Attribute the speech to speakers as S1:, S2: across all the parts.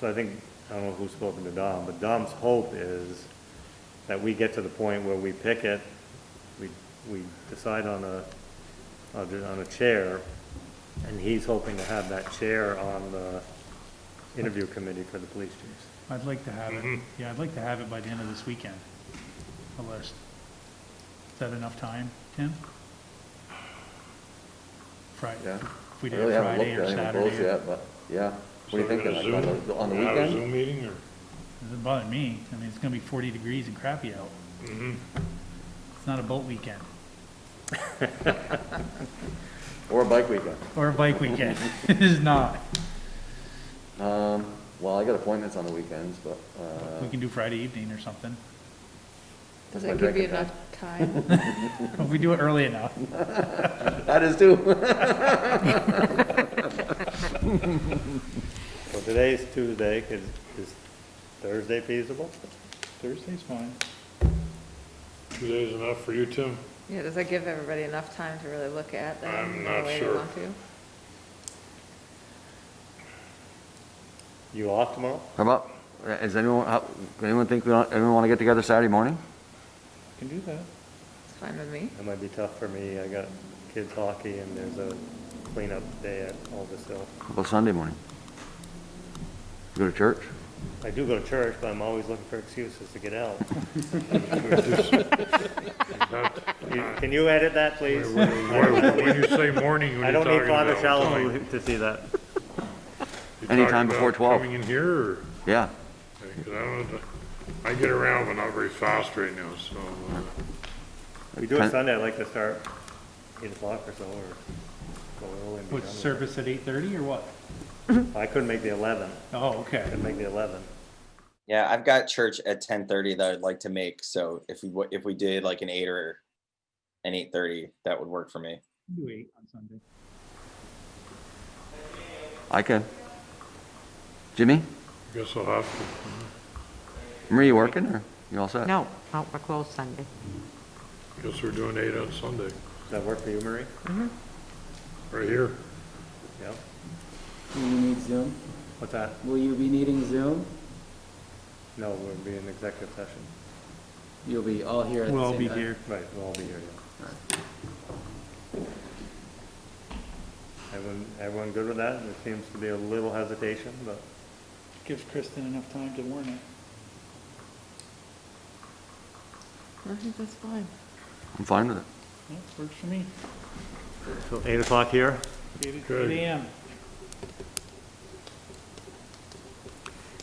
S1: So I think, I don't know who's spoken to Dom, but Dom's hope is that we get to the point where we pick it, we, we decide on a, on a chair, and he's hoping to have that chair on the interview committee for the police chiefs.
S2: I'd like to have
S3: Mm-hmm.
S2: it, yeah, I'd like to have it by the end of this weekend, a list. Is that enough time, Tim? Friday,
S3: Yeah.
S2: if we
S3: I
S2: did
S3: really
S2: it
S3: haven't
S2: Friday or
S3: looked at any of those
S2: Saturday,
S3: yet, but, yeah. What
S4: So
S3: do you
S4: we're
S3: thinking, like,
S4: gonna
S3: on
S4: Zoom?
S3: the, on the
S4: Have a
S3: weekend?
S4: Zoom meeting or?
S2: doesn't bother me, I mean, it's gonna be forty degrees and crappy out.
S3: Mm-hmm.
S2: It's not a boat weekend,
S3: Or a bike weekend?
S2: or a bike weekend, it is not.
S3: Um, well, I got appointments on the weekends, but,
S2: We
S3: uh.
S2: can do Friday evening or something,
S3: that's my
S5: Does that give you
S3: drinking time.
S5: enough time?
S2: if we do it early enough.
S3: That is too.
S1: So today's Tuesday, could, is Thursday feasible?
S2: Thursday's fine.
S4: Two days enough for you, Tim?
S5: Yeah, does that give everybody enough time to really look at that?
S4: I'm
S5: in the
S4: not
S5: way they
S4: sure.
S5: want to?
S1: You off tomorrow?
S3: How about, is anyone, how, does anyone think, we want- anyone wanna get together Saturday morning?
S2: Can do that.
S5: It's fine with me.
S1: That might be tough for me, I got kids hockey and there's a cleanup day at Aldous Hill.
S3: How about Sunday morning? Go to church?
S1: I do go to church, but I'm always looking for excuses to get out. You- Can you edit that, please?
S4: When you say morning,
S1: I
S4: when you're
S1: don't need
S4: talking
S1: Father
S4: about.
S1: Shallow
S4: time.
S1: Oh, to- to see that.
S4: You
S3: Anytime
S4: talking
S3: before
S4: about
S3: 12.
S4: Coming in here or?
S3: Yeah.
S4: Because I don't, I get around but not very fast right now, so. uh,
S1: We do it
S3: Ten-
S1: Sunday, I'd like to start eight o'clock or so, or go early and be done
S2: What,
S1: with it.
S2: service at eight thirty or what?
S1: I couldn't make the eleven,
S2: Oh, okay.
S1: couldn't make the eleven.
S6: Yeah, I've got church at ten thirty that I'd like to make. So if we wa- if we did like an eight or an eight thirty, that would work for me.
S2: Do eight on Sunday.
S3: I can. Jimmy,
S4: Guess I'll have to,
S3: Marie, you working or you all set?
S7: No, no, we're closed Sunday.
S4: guess we're doing eight on Sunday,
S1: Does that work for you, Marie?
S4: right here.
S1: Yeah,
S8: Will you need Zoom?
S1: what's that?
S8: Will you be needing Zoom?
S1: No, we'll be in executive session.
S8: You'll be all here at the
S2: We'll all
S8: same
S2: be
S8: time.
S2: here.
S1: Right, we'll all be here, yeah. Everyone, everyone good with that? There seems to be a little hesitation, but
S2: Gives Kristen enough time to warn it.
S5: I think that's fine.
S3: I'm fine with it.
S2: Yeah, Works for me.
S1: So eight o'clock here?
S2: Eight
S4: Good.
S2: AM.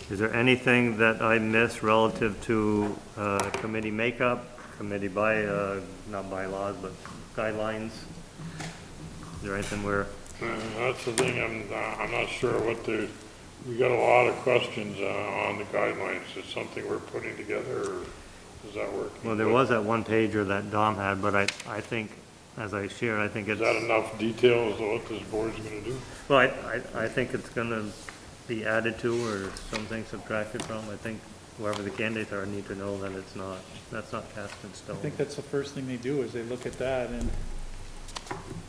S1: Is there anything that I missed relative to uh, committee makeup, committee by, uh, not bylaws, but guidelines? Is there anything where,
S4: Uh, That's the thing, I'm, uh, I'm not sure what the, we got a lot of questions uh, on the guidelines. Is something we're putting together or is that working?
S1: well, there was that one pager that Dom had, but I, I think, as I shared, I think
S4: Is that
S1: it's,
S4: enough detail as to what this board's gonna do?
S1: well, I, I- I think it's gonna be added to or something subtracted from. I think whoever the candidates are need to know that it's not, that's not cast in stone.
S2: I think that's the first thing they do is they look at that and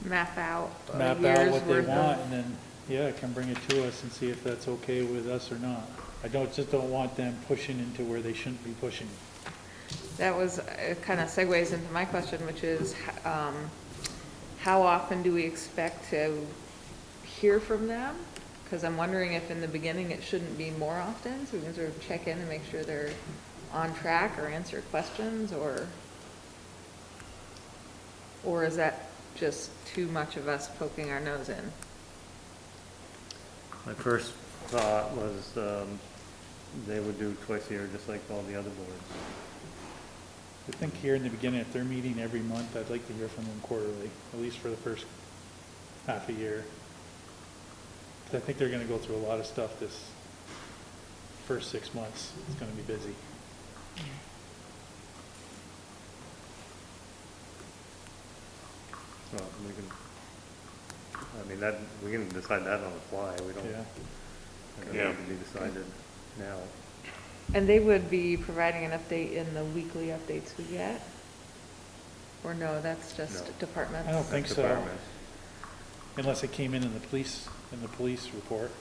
S5: Map out a
S2: map out
S5: year's
S2: what they
S5: worth
S2: want
S5: of.
S2: and then, yeah, can bring it to us and see if that's okay with us or not. I don't, just don't want them pushing into where they shouldn't be pushing.
S5: That was, it kind of segues into my question, which is, h- um, how often do we expect to hear from them? Because I'm wondering if in the beginning it shouldn't be more often, so we can sort of check in and make sure they're on track or answer questions or, or is that just too much of us poking our nose in?
S1: My first thought was, um, they would do twice a year, just like all the other boards.
S2: I think here in the beginning, if they're meeting every month, I'd like to hear from them quarterly, at least for the first half a year. 'Cause I think they're gonna go through a lot of stuff this first six months. It's gonna be busy.
S1: Well, we can, I mean, that, we can decide that on the fly, we don't,
S2: Yeah.
S1: it
S4: Yeah.
S1: doesn't need to be decided now.
S5: And they would be providing an update in the weekly updates we get? Or no, that's
S1: No.
S5: just departments?
S2: I don't think
S1: That's
S2: so.
S1: department.
S2: Unless it came in in the police, in the police report.